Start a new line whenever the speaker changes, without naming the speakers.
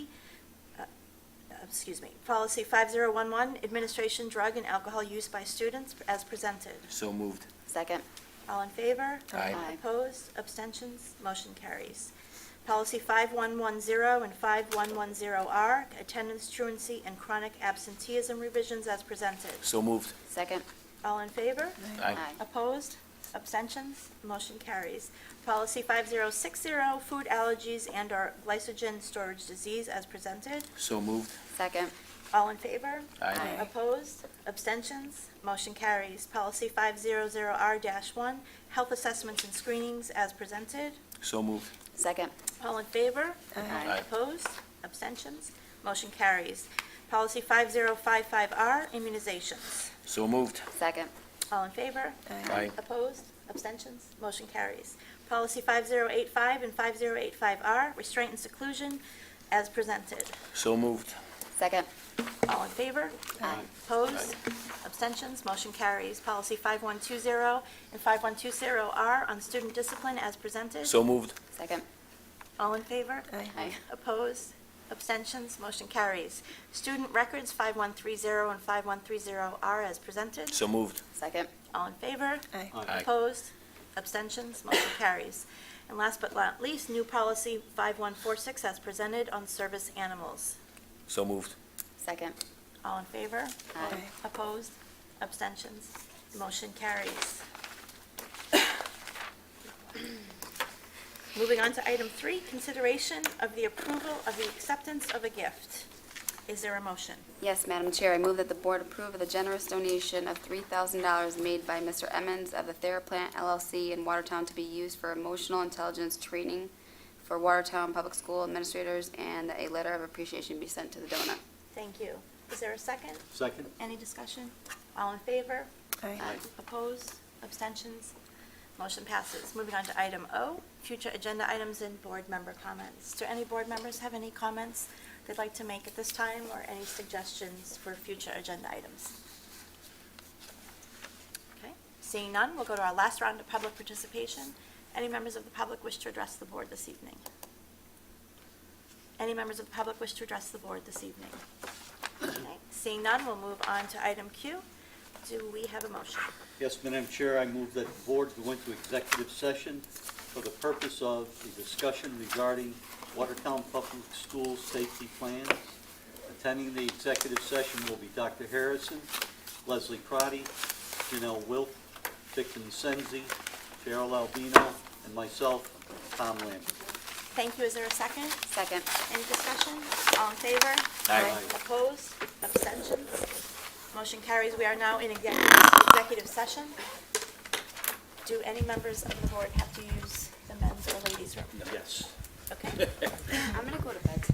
uh, excuse me, policy 5011, administration drug and alcohol use by students as presented.
So moved.
Second.
All in favor?
Aye.
Aye.
Opposed, abstentions, motion carries. Policy 5110 and 5110R, attendance truancy and chronic absenteeism revisions as presented.
So moved.
Second.
All in favor?
Aye.
Opposed? Abstentions? Motion carries. Policy 5060, food allergies and/or glycogen storage disease as presented.
So moved.
Second.
All in favor?
Aye.
Aye.
Opposed? Abstentions? Motion carries. Policy 500R-1, health assessments and screenings as presented.
So moved.
Second.
All in favor?
Aye.
Opposed? Abstentions? Motion carries. Policy 5055R, immunizations.
So moved.
Second.
All in favor?
Aye.
Opposed? Abstentions? Motion carries. Policy 5085 and 5085R, restraint and seclusion, as presented.
So moved.
Second.
All in favor?
Aye.
Opposed? Abstentions? Motion carries. Policy 5120 and 5120R on student discipline, as presented.
So moved.
Second.
All in favor?
Aye.
Opposed? Abstentions? Motion carries. Student records 5130 and 5130R, as presented.
So moved.
Second.
All in favor?
Aye.
Opposed? Abstentions? Motion carries. And last but not least, new policy 5146 as presented on service animals.
So moved.
Second.
All in favor?
Aye.
Opposed? Abstentions? Motion carries. Moving on to item three, consideration of the approval of the acceptance of a gift. Is there a motion?
Yes, Madam Chair, I move that the board approve of the generous donation of $3,000 made by Mr. Emmons of the TheraPlant LLC in Watertown to be used for emotional intelligence training for Watertown Public School administrators, and that a letter of appreciation be sent to the donor.
Thank you. Is there a second?
Second?
Any discussion? All in favor?
Aye.
Opposed? Abstentions? Motion passes. Moving on to item O, future agenda items and board member comments. Do any board members have any comments they'd like to make at this time or any suggestions for future agenda items? Okay, seeing none, we'll go to our last round of public participation. Any members of the public wish to address the board this evening? Any members of the public wish to address the board this evening? Okay, Seeing none, we'll move on to item Q. Do we have a motion?
Yes, Madam Chair, I move that the board go into executive session for the purpose of the discussion regarding Watertown Public Schools safety plans. Attending the executive session will be Dr. Harrison, Leslie Crotty, Janelle Wilk, Victor Senzi, Gerald Albino, and myself, Tom Lambert.
Thank you. Is there a second?
Second.
Any discussion? All in favor?
Aye.
Opposed? Abstentions? Motion carries. We are now in executive executive session. Do any members of the board have to use